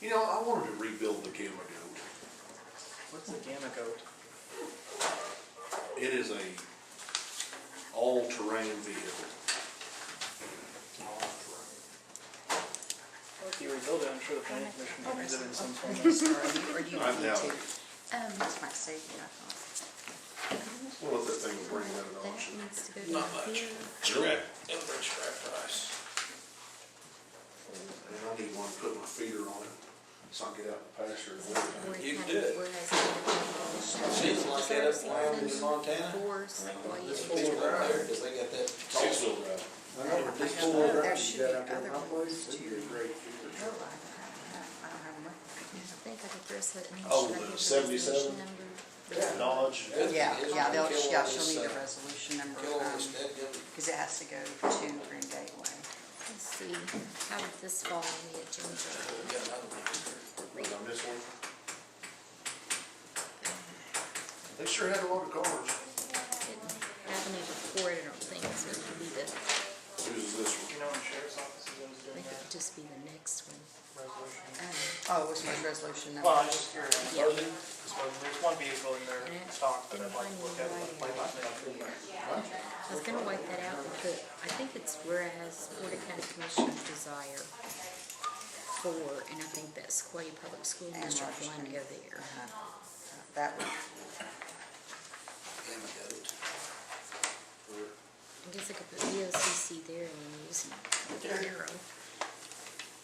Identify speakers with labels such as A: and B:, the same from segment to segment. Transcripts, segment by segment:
A: You know, I wanted to rebuild the Gamma Goat.
B: What's the gamma goat?
A: It is a all-terrain vehicle.
B: Well, If you rebuild it, I'm sure the planning commission can use it in some form of.
C: Or do you
A: I
C: need
A: doubt
C: to?
A: it.
D: Um, that's my statement, I thought.
A: We'll let that thing bring that at
D: That
A: auction.
D: needs to go down
E: Not much.
D: here.
E: Scrap, it'll bring scrap price.
A: And I need one to put my feeder on it, so I can get out and pasture and
D: Where
A: whatever.
D: it
E: You
D: had-
E: do it.
D: where it has the-
E: See, it's like that up around in
D: Services
E: Montana.
D: and Force, well, you-
E: There's people out there, 'cause they got that.
A: Six-wheel drive.
F: I know, but Oh, this
D: I
F: four
D: know,
F: wheel
D: there
F: drive
D: should
F: you got
D: be
F: out there,
D: other
F: my
D: ones
F: place, it'd be
D: too.
F: a great future
D: Oh, I
F: truck.
D: don't have- I don't have one. I think I could dress it.
A: Oh,
D: and should I
A: the
D: give
A: 77?
D: resolution number?
A: Dodge.
C: Yeah, yeah, they'll,
E: Kill all
C: yeah, she'll
E: this,
C: need a
E: uh,
C: resolution number,
E: Kill all this
C: because
E: dead gum.
C: it has to go to Green Gateway.
D: Let's see, how did this fall on the agenda?
E: We got another one.
A: Was on this one? They sure had a lot of cars.
D: Didn't have any before, I don't think, so it could be the,
A: Who's this
B: You
A: one?
B: know, in sheriff's offices, I was
D: I
B: doing
D: think it could
B: that
D: just be the next one.
B: resolution.
D: Um,
C: Oh, what's my resolution number?
B: Well, I just hear,
D: Yeah.
B: there's one vehicle in their stock that I'd like to look at, like, play by play.
D: I was gonna wipe that out, but I think it's whereas Board of County Commissioners desire for, and I think that's Sequoia Public School
C: And
D: District
C: Rogers
D: one
C: County.
D: go there.
C: Uh-huh. That would,
E: Damn it, goat.
D: I guess I could put VOCC there and then use the arrow.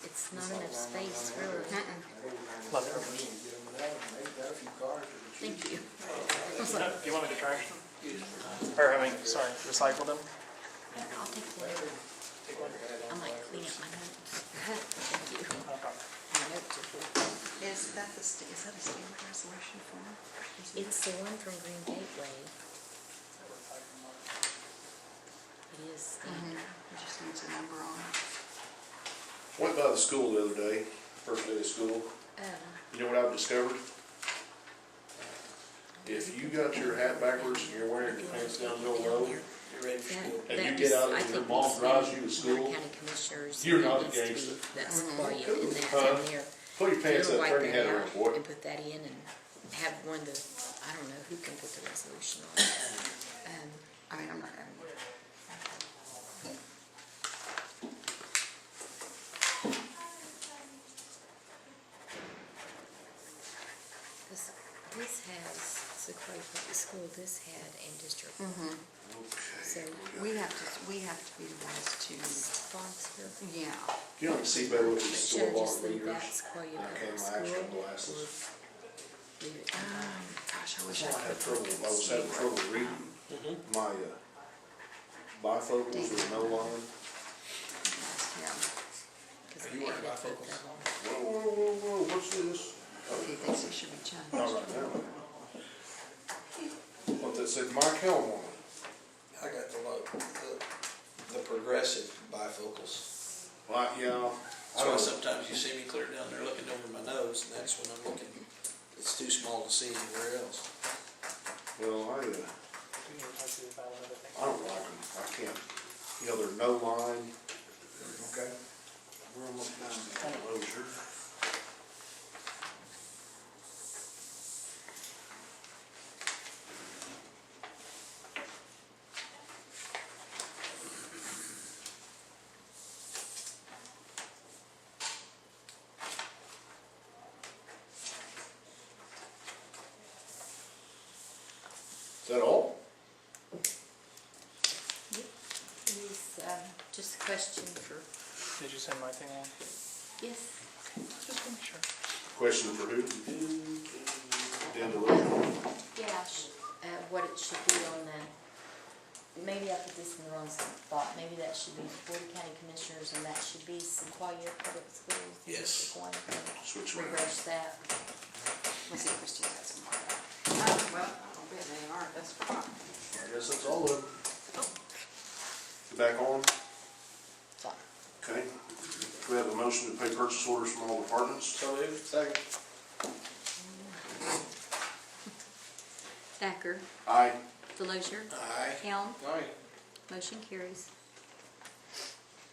D: It's not enough space, really. Thank you.
B: Do you want me to trash them? Or, I mean, sorry, recycle them?
D: I'll take one. I might clean up my notes. Thank you.
B: No problem.
D: My notes are full.
C: is that the, sta- is that a standard resolution form?
D: It's the one from Green Gateway. It is standard.
C: It Mm-hmm. just needs a number on it.
A: Went by the school the other day, first day of school.
D: Uh,
A: You know what I've discovered? If you got your hat backwards and you're wearing your pants down real low,
E: You ready for school?
A: And you get out and your mom drives you to school, you're not a gangster.
D: That's for you,
A: Cool.
D: and that's
A: Huh?
D: in there.
A: put your pants
D: You'll
A: up,
D: wipe
A: turn your
D: that
A: head around,
D: out
A: boy.
D: And put that in and have one of the, I don't know who can put the resolution on. Um,
C: I mean, I'm not gonna,
D: This, this has Sequoia Public School, this had and District So,
C: we have to, we have to be the ones to,
D: Foxville.
C: yeah.
A: You don't see better with these
D: Should
A: store
D: I just
A: bought
D: leave
A: readers.
D: that
A: I
D: Sequoia Public
A: can't, my
D: School?
A: actual
D: or
A: glasses.
D: Leave
C: Um,
D: it combined?
C: Gosh, I wish
A: I
C: I
A: had
C: could.
A: trouble, I was having trouble reading my, uh, bifocals were no longer.
C: Yeah,
D: 'Cause I ended up with that one.
A: Whoa, whoa, whoa, whoa, what's this?
C: he thinks he should be judged.
A: Not right now. What that said, Mike Helm on it.
E: I got the low, the, the progressive bifocals.
A: Like, yeah. I
E: That's why
A: don't,
E: sometimes you see me clear down there looking over my nose, and that's when I'm looking. It's too small to see anywhere else.
A: well, I, uh,
B: We need to talk to you about another thing.
A: I don't like them, I can't, you know, they're no line. Okay. We're almost down to closure. Is that all?
D: It is, uh, just a question for,
B: Did you send my thing in?
D: yes,
B: Just make sure.
A: Question for who? Dan DeRoe.
D: yeah, sh- uh, what it should be on the, maybe I put this in the wrong spot, maybe that should be Board of County Commissioners and that should be Sequoia Public Schools.
E: Yes.
D: Sequoia Public.
A: Switch around.
D: Reverse that.
C: Let's see, Christie has some. Oh, well, I'll bet they are, that's fine.
A: I guess that's all of them. Back on? Okay. Do we have a motion to pay purchase orders from all departments?
E: So moved. Second.
D: Thacker,
A: Aye.
D: Delozer,
E: Aye.
D: Helm,
E: Aye.
D: motion carries.